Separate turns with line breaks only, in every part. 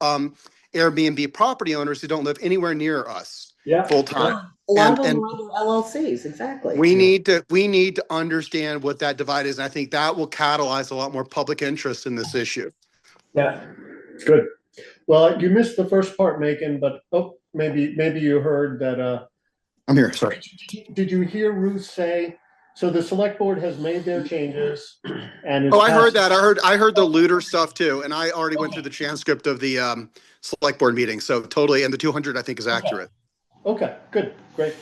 um, Airbnb property owners who don't live anywhere near us
Yeah.
full time.
A lot
And-
of them
and-
are under LLCs, exactly.
We need to, we need to understand what that divide is. And I think that will catalyze a lot more public interest in this issue.
Yeah. Good.
Well, you missed the first part, Megan, but, oh, maybe, maybe you heard that, uh,
I'm here, sorry.
did you hear Ruth say, so the select board has made their changes and. it's
Oh, I heard
passed-
that. I heard, I heard the looter stuff too. And I already went through the transcript of the, um, select board meeting. So totally, and the two hundred I think is accurate.
Okay, good, great.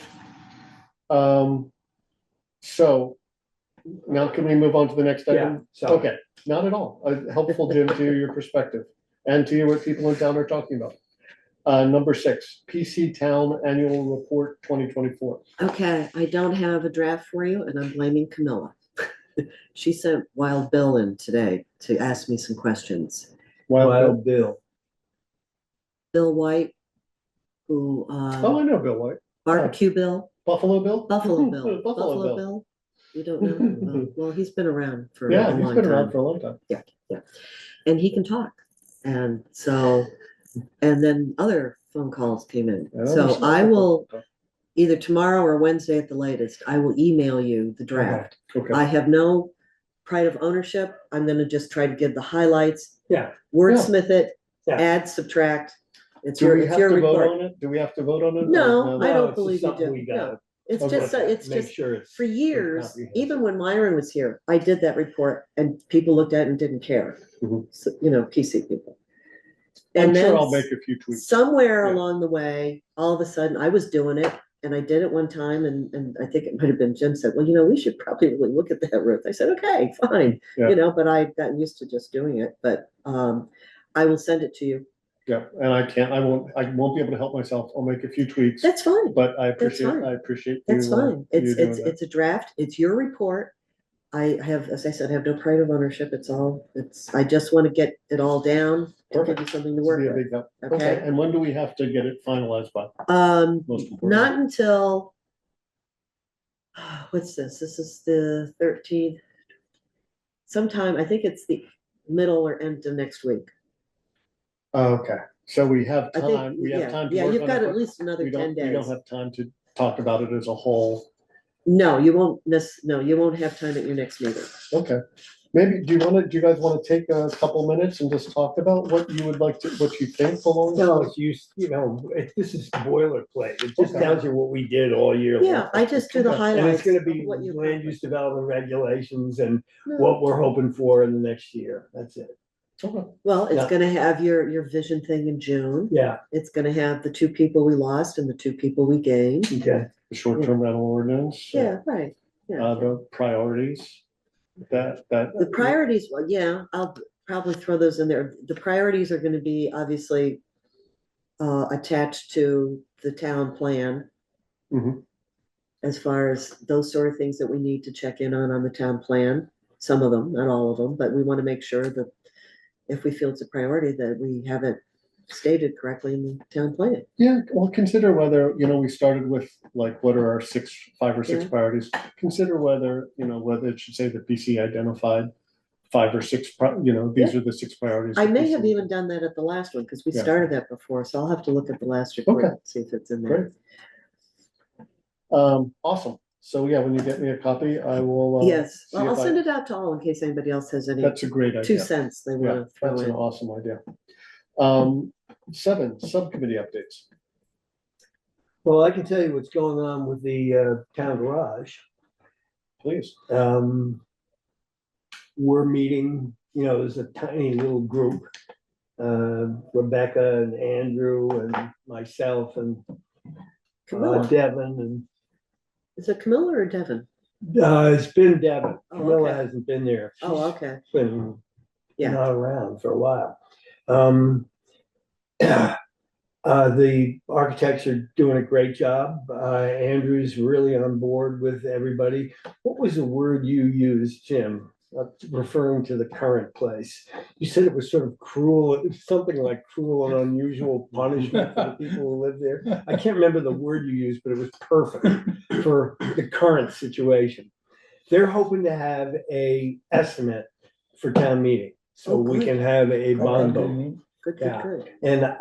Um, so now can we move on to the next
Yeah.
item?
So.
Okay, not at all. Uh, Helpful, Jim, to your perspective and to what people in town are talking about. Uh, number six, PC Town Annual Report twenty twenty-four.
Okay, I don't have a draft for you and I'm blaming Camilla. She sent Wild Bill in today to ask me some questions.
Wild
Bill.
Bill White, who,
Bill. Oh, I
uh,
know Bill White.
Barbecue Bill,
Buffalo Bill?
Buffalo Bill,
Buffalo Bill.
You don't know? him? Well- Well, he's been around for
Yeah,
a
he's
long
been around
time.
for a long time.
and he can talk. And so, and then other phone calls came in.
I don't
So
understand
I
that.
will, either tomorrow or Wednesday at the latest, I will email you the draft.
Okay,
I have no pride of ownership. I'm gonna just try to give the highlights.
Yeah.
Wordsmith it,
Yeah.
add, subtract. It's
do
your,
we
it's
have
your
to vote
report.
on it? Do we have to vote on it?
No, I
No,
don't
it's just
believe you
something
do.
we
No,
gotta-
it's
Okay.
just, a- it's
Make
just
sure it's-
for years,
comprehensive.
even when Myron was here, I did that report and people looked at it and didn't care.
Mhm.
So, you know, PC people.
I'm
And
sure
then
I'll make a few tweets.
somewhere
Yeah.
along the way, all of a sudden, I was doing it and I did it one time and, and I think it might have been Jim said, well, you know, we should probably really look at that roof. I said, okay, fine.
Yeah.
You know, but I got used to just doing it, but, um, I will send it to you.
Yeah, and I can't, I won't, I won't be able to help myself. I'll make a few tweets,
That's fine.
but I appreciate,
fine.
I appreciate.
That's
you, uh,
fine. It's,
you doing
it's,
that.
it's a draft. It's your report. I have, as I said, I have no pride of ownership. It's all, it's, I just want to get it all down to give you
Perfect.
something to
This
work
will be a
with.
big help. Okay,
Okay?
and when do we have to get it finalized by?
Um,
Most important.
Not until, what's this? This is the thirteenth. Sometime, I think it's the middle or end of next week.
Okay, so we have
I think,
time, we have
yeah,
time. to
yeah,
work
you've
on it,
got
but
at least another
We don't,
ten
we
days.
don't have time to talk about it as a whole.
No, you won't miss, no, you won't have time at your next meeting.
Okay, maybe, do you wanna, do you guys wanna take a couple minutes and just talk about what you would like to, what you think belongs?
No, it's used, you know, it, this is boilerplate. It just
Okay.
tells you what we did all year.
Yeah,
long.
I just do the
Okay.
And
highlights.
it's gonna
of
be
what you've
land
accomplished.
use development regulations and
No.
what we're hoping for in the next year. That's it.
Okay,
Well, it's
Yeah.
gonna have your, your vision thing in June.
Yeah,
It's gonna have the two people we lost and the two people we gained.
okay.
the short-term rental ordinance.
Yeah, right, yeah.
Um,
Uh, the priorities, that, that.
The priorities, well, yeah, I'll probably throw those in there. The priorities are gonna be obviously uh, attached to the town plan
Mhm.
as far as those sort of things that we need to check in on, on the town plan. Some of them, not all of them, but we wanna make sure that if we feel it's a priority, that we have it stated correctly in the town plan.
Yeah, well, consider whether, you know, we started with like, what are our six, five or six
Yeah.
priorities? Consider whether, you know, whether it should say that PC identified five or six, pri- you know, these are the six priorities.
I
that
may
PC
have even done that at the last one, because we
Yeah.
started that before, so I'll have to look at the last report,
Okay.
and see if it's in
Great.
there.
Um, awesome. So yeah, when you get me a copy, I will. uh,
Yes,
see
well, I'll
if I-
send it out to all in case anybody else has any
That's a great
two
idea.
cents they
Yeah,
wanna throw
that's an
in.
awesome idea. Um, seven, subcommittee updates.
Well, I can tell you what's going on with the uh, town garage.
Please.
um, we're meeting, you know, there's a tiny little group. Uh, Rebecca and Andrew and myself and uh,
Camilla,
Devin
is it Camilla or Devin?
and, uh, it's been Devin.
Oh,
Camilla
okay.
hasn't been there.
Oh,
She's
okay,
Been
Yeah.
not around for a while. Um, uh, the architects are doing a great job. Uh, Andrew's really on board with everybody. What was the word you used, Jim, uh, referring to the current place? You said it was sort of cruel, something like cruel and unusual punishment for the people who live there. I can't remember the word you used, but it was perfect for the current situation. They're hoping to have a estimate for town meeting, so
Oh,
we
good.
can have a bond vote.
Good, good,
Yeah.
good.
And